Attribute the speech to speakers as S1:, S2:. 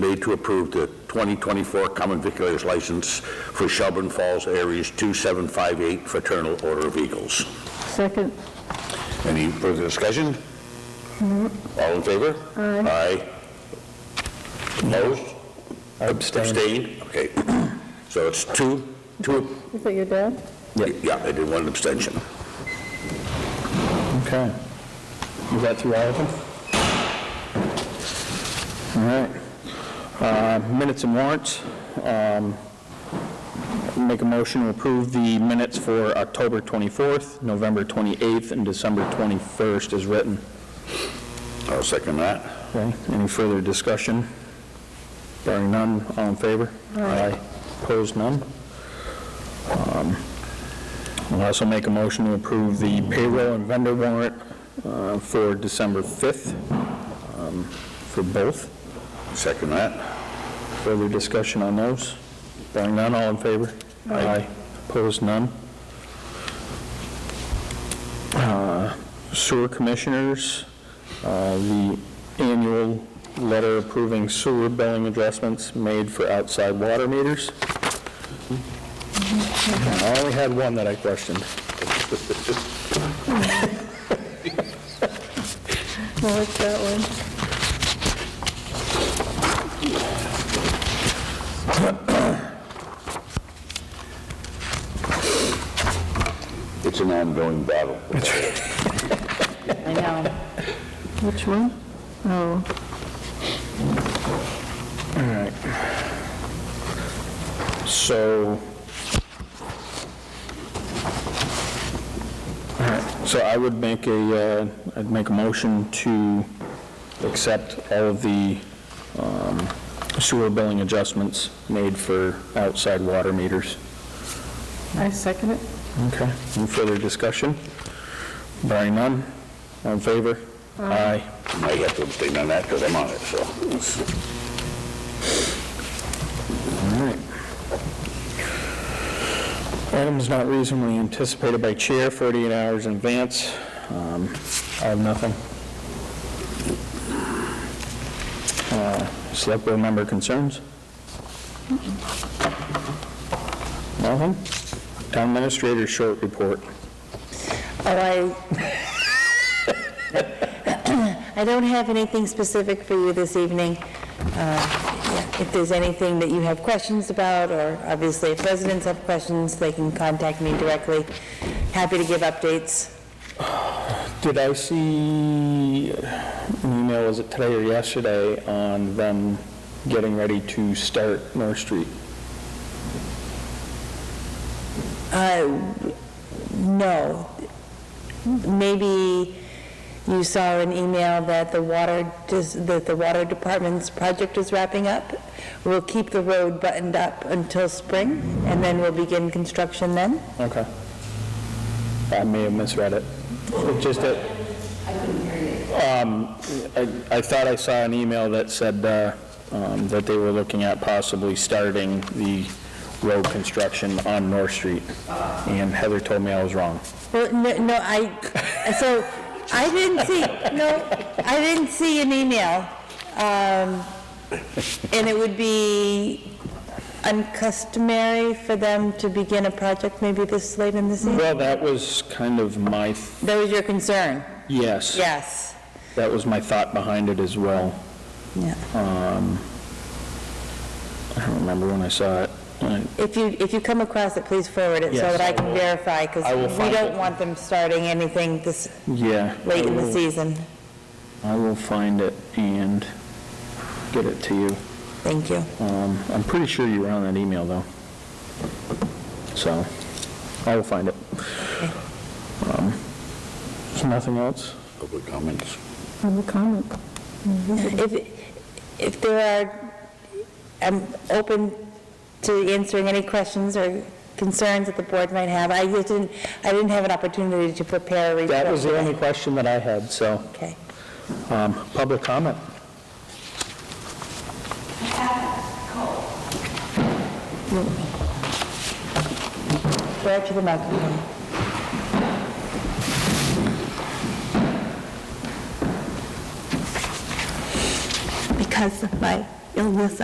S1: made to approve the 2024 common vicular's license for Shelburne Falls Aries 2758 Fraternal Order of Eagles.
S2: Second,
S1: Any further discussion? All in favor? Aye. Opposed? Abstained? Okay. So it's two, two,
S2: is that your dad?
S1: yeah, I did one abstention.
S3: Okay. You got through all of them? All right. Uh, Minutes and warrants. Um, Make a motion to approve the minutes for October 24th, November 28th, and December 21st as written.
S1: I'll second that.
S3: Okay, any further discussion? Barring none, all in favor? Aye. Opposed, none? Um, I'll also make a motion to approve the payroll and vendor warrant uh, for December 5th um, for both.
S1: Second that.
S3: Further discussion on those? Barring none, all in favor? Aye. Opposed, none? Uh, Sewer Commissioners, uh, the annual letter approving sewer billing adjustments made for outside water meters. I only had one that I questioned.
S2: No, it's that one.
S1: It's an ongoing battle.
S4: I know.
S2: Which one? Oh,
S3: So, All right, so I would make a, uh, I'd make a motion to accept all of the um, sewer billing adjustments made for outside water meters.
S2: I second it.
S3: Okay. Any further discussion? Barring none, all in favor? Aye.
S1: I have to abstain on that because I'm on it, so.
S3: All right. Items not reasonably anticipated by chair, 48 hours in advance. Um, I have nothing. Uh, Select board member concerns? Nothing? Town administrator short report.
S4: Oh, I, I don't have anything specific for you this evening. Uh, yeah, If there's anything that you have questions about, or obviously if residents have questions, they can contact me directly. Happy to give updates.
S3: Did I see an email, was it today or yesterday, on them getting ready to start North Street?
S4: Uh, No. Maybe you saw an email that the water, dis- that the water department's project is wrapping up. We'll keep the road buttoned up until spring, and then we'll begin construction then.
S3: Okay. I may have misread it. It's Just that... Um, I I thought I saw an email that said uh, um, that they were looking at possibly starting the road construction on North Street, and Heather told me I was wrong.
S4: Well, no, no, I, so, I didn't see, no, I didn't see an email. Um, And it would be uncustomary for them to begin a project maybe this late in the season?
S3: Well, that was kind of my, th-
S4: That was your concern?
S3: yes.
S4: Yes.
S3: That was my thought behind it as well.
S4: Yeah.
S3: I don't remember when I saw it. I-
S4: If you, if you come across it, please forward it so
S3: Yes,
S4: that I
S3: I
S4: can
S3: will.
S4: verify, because
S3: I will
S4: we
S3: find
S4: don't
S3: it.
S4: want them starting anything this
S3: Yeah.
S4: late in
S3: I
S4: the
S3: will-
S4: season.
S3: I will find it and get it to you.
S4: Thank you.
S3: Um, I'm pretty sure you were on that email, though. So, I will find it. Um, Is nothing else?
S1: Public comments.
S2: Public comment.
S4: If, if there are, I'm open to answering any questions or concerns that the board might have. I just didn't, I didn't have an opportunity to prepare a report.
S3: That was the
S4: today.
S3: only question that I had, so,
S4: Okay.
S3: um, public comment.
S4: Go up to the microphone.
S5: because my
S4: illness